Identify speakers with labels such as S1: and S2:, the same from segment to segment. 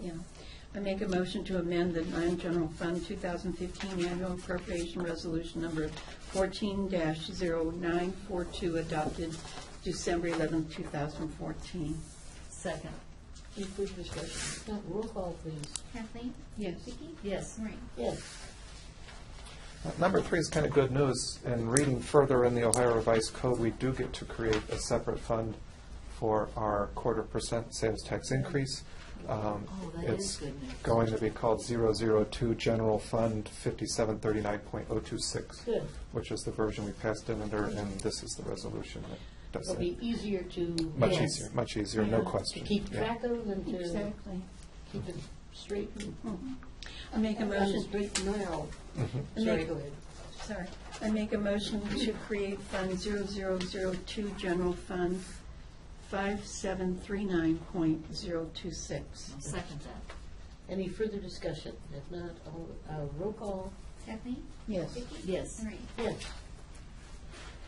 S1: Yeah. I make a motion to amend the non-general fund 2015 annual appropriation resolution number 14-0942 adopted December 11, 2014.
S2: Second.
S3: Any further discussion? Not roll call, please.
S4: Kathleen?
S1: Yes.
S4: Vicki?
S2: Yes.
S4: Maureen?
S3: Yes.
S5: Number three is kind of good news. In reading further in the Ohio Revised Code, we do get to create a separate fund for our quarter percent sales tax increase. Um,
S2: Oh, that is good news.
S5: It's going to be called 002 General Fund 5739.026,
S3: Good.
S5: which is the version we passed in under, and this is the resolution that does
S3: It'll be
S5: it.
S3: easier to.
S5: Much
S2: Yes.
S5: easier, much easier, no question.
S3: To keep
S5: Yeah.
S3: track of and to
S1: Exactly.
S3: keep it straight. and-
S1: I make a motion,
S3: Straight and narrow.
S5: Mm-hmm.
S1: I
S3: Sorry,
S1: make-
S3: go ahead.
S1: sorry, I make a motion to create Fund 0002 General Fund 5739.026.
S2: Second that.
S3: Any further discussion? If not, all, uh, roll call,
S4: Kathleen?
S1: Yes.
S4: Vicki?
S2: Yes.
S4: Maureen?
S3: yes.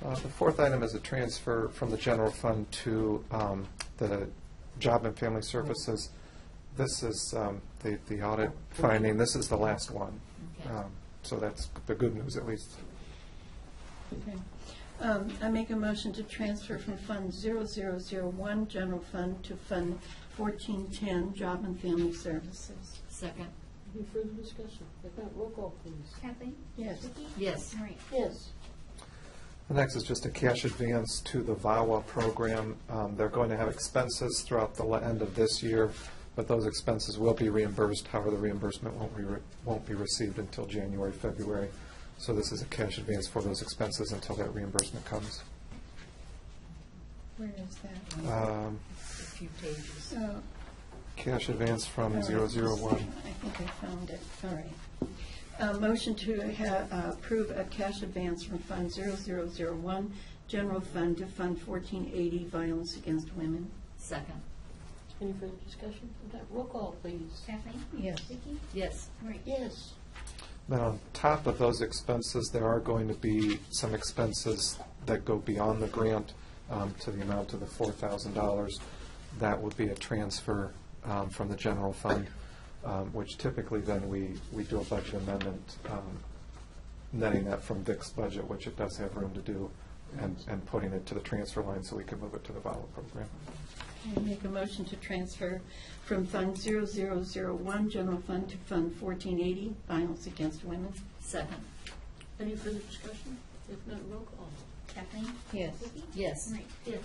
S5: Uh, The fourth item is a transfer from the general fund to um, the Job and Family Services. This is um, the the audit finding, this is the last one.
S2: Okay.
S5: Um, So that's the good news, at least.
S1: Okay. Um, I make a motion to transfer from Fund 0001, General Fund, to Fund 1410, Job and Family Services.
S2: Second.
S3: Any further discussion? If not, roll call, please.
S4: Kathleen?
S1: Yes.
S4: Vicki?
S2: Yes.
S4: Maureen?
S3: Yes.
S5: The next is just a cash advance to the VAWA program. Um, They're going to have expenses throughout the la- end of this year, but those expenses will be reimbursed. However, the reimbursement won't be, re- won't be received until January, February. So this is a cash advance for those expenses until that reimbursement comes.
S1: Where is that one?
S5: Um,
S2: A few pages.
S1: Oh,
S5: Cash advance
S1: all
S5: from
S1: right.
S5: 001.
S1: I think I found it, all right. Uh, Motion to ha- uh, approve a cash advance from Fund 0001, General Fund, to Fund 1480, Violence Against Women.
S2: Second.
S3: Any further discussion? If not, roll call, please.
S4: Kathleen?
S1: Yes.
S4: Vicki?
S2: Yes.
S4: Maureen?
S3: Yes.
S5: Then on top of those expenses, there are going to be some expenses that go beyond the grant um, to the amount of the $4,000. That would be a transfer um, from the general fund, um, which typically then we, we do a budget amendment, um, netting that from Vic's budget, which it does have room to do, and, and putting it to the transfer line so we can move it to the VAWA program.
S1: I make a motion to transfer from Fund 0001, General Fund, to Fund 1480, Violence Against Women.
S2: Second.
S3: Any further discussion? If not, roll call.
S4: Kathleen?
S1: Yes.
S4: Vicki?
S2: Yes.
S4: Maureen?
S3: Yes.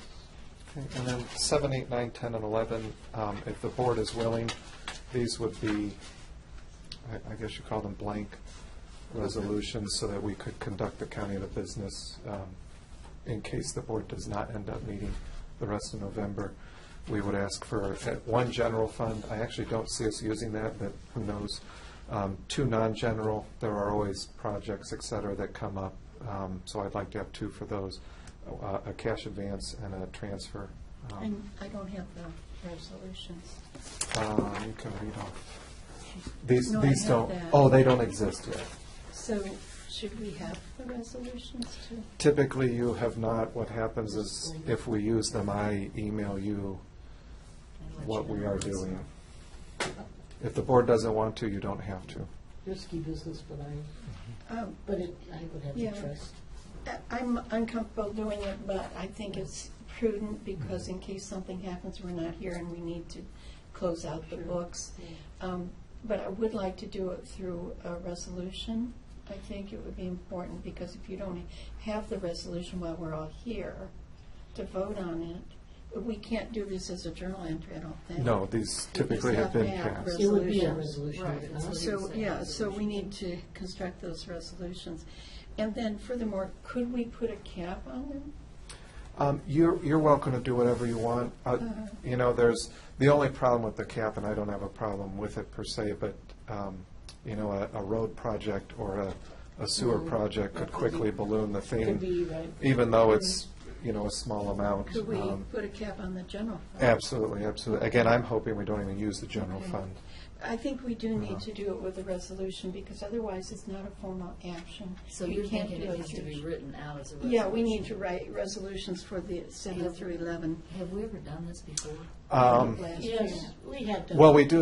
S5: Okay, And then seven, eight, nine, 10, and 11, um, if the board is willing, these would be, I- I guess you call them blank resolutions, so that we could conduct the county of the business um, in case the board does not end up meeting the rest of November. We would ask for, uh, one general fund, I actually don't see us using that, but who knows? Um, Two non-general, there are always projects, et cetera, that come up, um, so I'd like to have two for those, uh, a cash advance and a transfer. Um,
S1: And I don't have the resolutions.
S5: um, You can read off. These,
S1: No, I
S5: these
S1: have
S5: don't,
S1: that.
S5: oh, they don't exist yet.
S1: So should we have the resolutions too?
S5: Typically, you have not. What happens is if we use them, I email you
S2: And let
S5: what
S2: you
S5: we
S2: know.
S5: are doing. If the board doesn't want to, you don't have to.
S3: Risky business, but I,
S1: Oh,
S3: but it, I would have
S1: Yeah.
S3: to trust.
S1: I- I'm uncomfortable doing it, but I think it's prudent because in case something happens, we're not here and we need to close out the books. Um, But I would like to do it through a resolution. I think it would be important because if you don't have the resolution while we're all here to vote on it, we can't do this as a journal entry, I don't think.
S5: No, these typically have been
S1: It's not bad,
S5: passed.
S3: It would be a
S1: Resolutions.
S3: resolution.
S2: Right,
S3: but
S2: that's
S3: not-
S1: So,
S2: what he
S1: yeah, so we need to construct those resolutions. And then furthermore, could we put a cap on them?
S5: Um, You're, you're welcome to do whatever you want. Uh,
S1: Uh-huh.
S5: You know, there's, the only problem with the cap, and I don't have a problem with it per se, but, um, you know, a- a road project or a- a sewer project could quickly balloon the thing.
S3: Could be, right.
S5: even though it's, you know, a small amount.
S1: Could we
S5: um, uh,
S1: put a cap on the general fund?
S5: Absolutely, absolutely. Again, I'm hoping we don't even use the general
S1: Okay.
S5: fund.
S1: I think we do need
S5: Uh-huh.
S1: to do it with a resolution, because otherwise it's not a formal action.
S2: So
S1: We
S2: you're
S1: can't
S2: thinking
S1: do
S2: it has to
S1: through-
S2: be written out as a resolution?
S1: Yeah, we need to write resolutions for the seven through eleven.
S2: Have we ever done this before?
S5: Um,
S1: last year.
S3: Yes, we have to.
S5: Well, we do